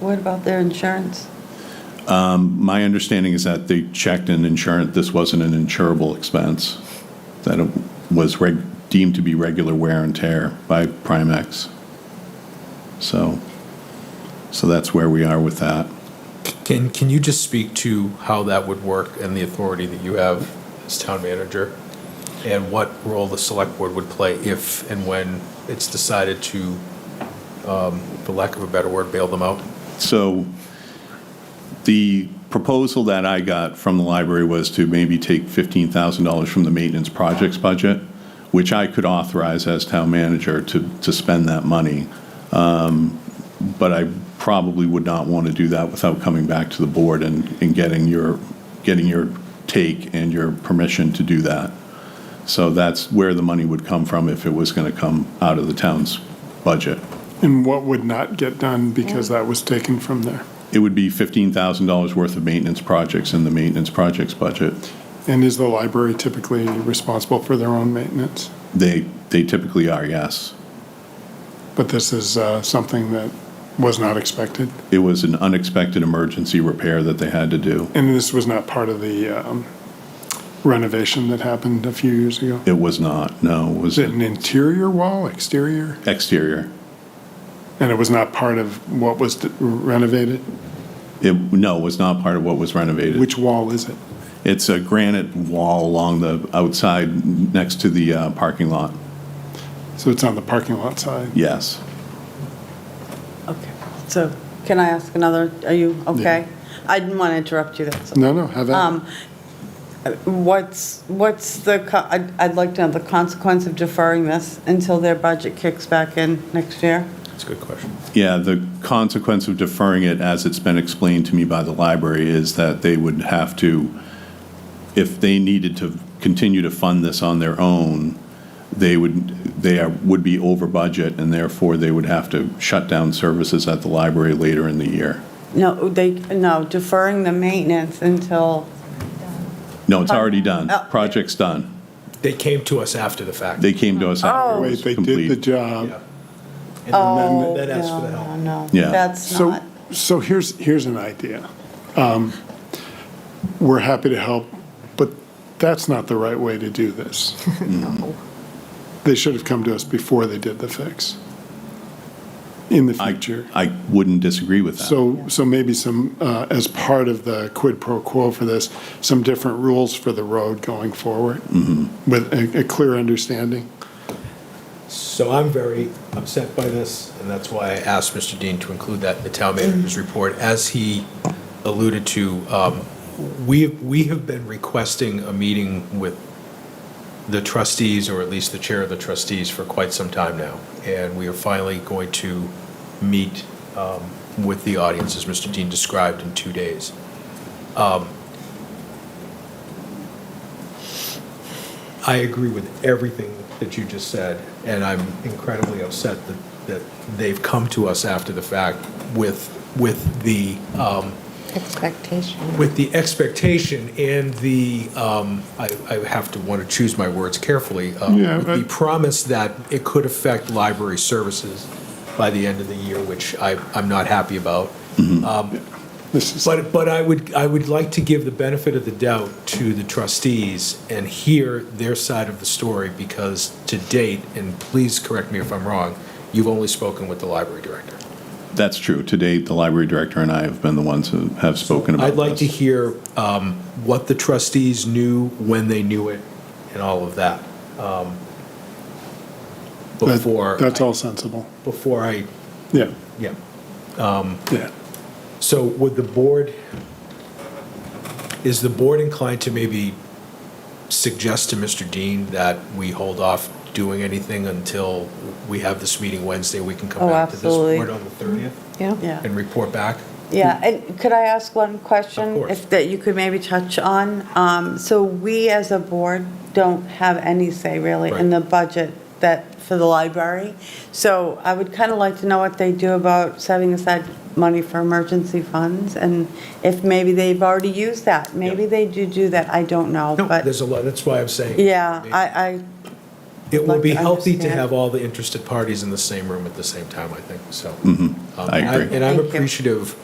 What about their insurance? My understanding is that they checked and insured, this wasn't an insurable expense, that it was reg- deemed to be regular wear and tear by Primex. So, so that's where we are with that. Can, can you just speak to how that would work and the authority that you have as town manager? And what role the select board would play if and when it's decided to, um, for lack of a better word, bail them out? So the proposal that I got from the library was to maybe take $15,000 from the maintenance projects budget, which I could authorize as town manager to, to spend that money. Um, But I probably would not want to do that without coming back to the board and, and getting your, getting your take and your permission to do that. So that's where the money would come from if it was going to come out of the town's budget. And what would not get done because that was taken from there? It would be $15,000 worth of maintenance projects in the maintenance projects budget. And is the library typically responsible for their own maintenance? They, they typically are, yes. But this is uh, something that was not expected, It was an unexpected emergency repair that they had to do. and this was not part of the um, renovation that happened a few years ago. It was not, no, it was Is it an interior wall, exterior? exterior. And it was not part of what was d- renovated? It, no, it was not part of what was renovated. Which wall is it? It's a granite wall along the outside next to the uh, parking lot, So it's on the parking lot side. yes. Okay, so can I ask another, are you okay? I didn't want to interrupt you, that's all. No, no, have at it. Um, What's, what's the, co- I'd I'd like to know the consequence of deferring this until their budget kicks back in next year? That's a good question. Yeah, the consequence of deferring it, as it's been explained to me by the library, is that they would have to, if they needed to continue to fund this on their own, they would, they are, would be over budget, and therefore they would have to shut down services at the library later in the year. No, they, no, deferring the maintenance until, No, it's already done. Oh. Project's done. They came to us after the fact. They came to us after it Oh. Wait, was they did the complete. Yeah. job. And then oh, that asked for no, the help. no, no. Yeah. That's So, not, so here's, here's an idea. Um, We're happy to help, but that's not the right way to do this. They should have come to us before they did the fix in the I, future. I wouldn't disagree with that. So, so maybe some, uh, as part of the quid pro quo for this, some different rules for the road going forward Mm-hmm. with a, a clear understanding. So I'm very upset by this, and that's why I asked Mr. Dean to include that in the town manager's report. As he alluded to, um, we, we have been requesting a meeting with the trustees, or at least the chair of the trustees, for quite some time now. And we are finally going to meet um, with the audience, as Mr. Dean described, in two days. I agree with everything that you just said, and I'm incredibly upset that, that they've come to us after the fact with, with the, um, Expectation. with the expectation and the, um, I, I have to want to choose my words carefully, um, Yeah, with the but- promise that it could affect library services by the end of the year, which I, I'm not happy about. This is, But, but I would, I would like to give the benefit of the doubt to the trustees and hear their side of the story, because to date, and please correct me if I'm wrong, you've only spoken with the library director. That's true. To date, the library director and I have been the ones who have spoken about I'd like to this. hear um, what the trustees knew, when they knew it, and all of that. um, Before, that- that's I- all sensible. before I, Yeah, yeah. yeah. So would the board, is the board inclined to maybe suggest to Mr. Dean that we hold off doing anything until we have this meeting Wednesday? We can come Oh, back to this absolutely. board on the 30th Yeah. yeah. and report back? Yeah, and could I ask one Of question? course. If, that you could maybe touch on? Um, So we as a board don't have any say really in Right. the budget that, for the library. So I would kind of like to know what they do about setting aside money for emergency funds and if maybe they've already used that. Maybe they do do that, I don't know, No, but, there's a lot, that's why I'm saying. yeah, I, I, It will like be to healthy to understand. have all the interested parties in the same room at the same time, I think, so. Um, I agree. And I'm Thank you. appreciative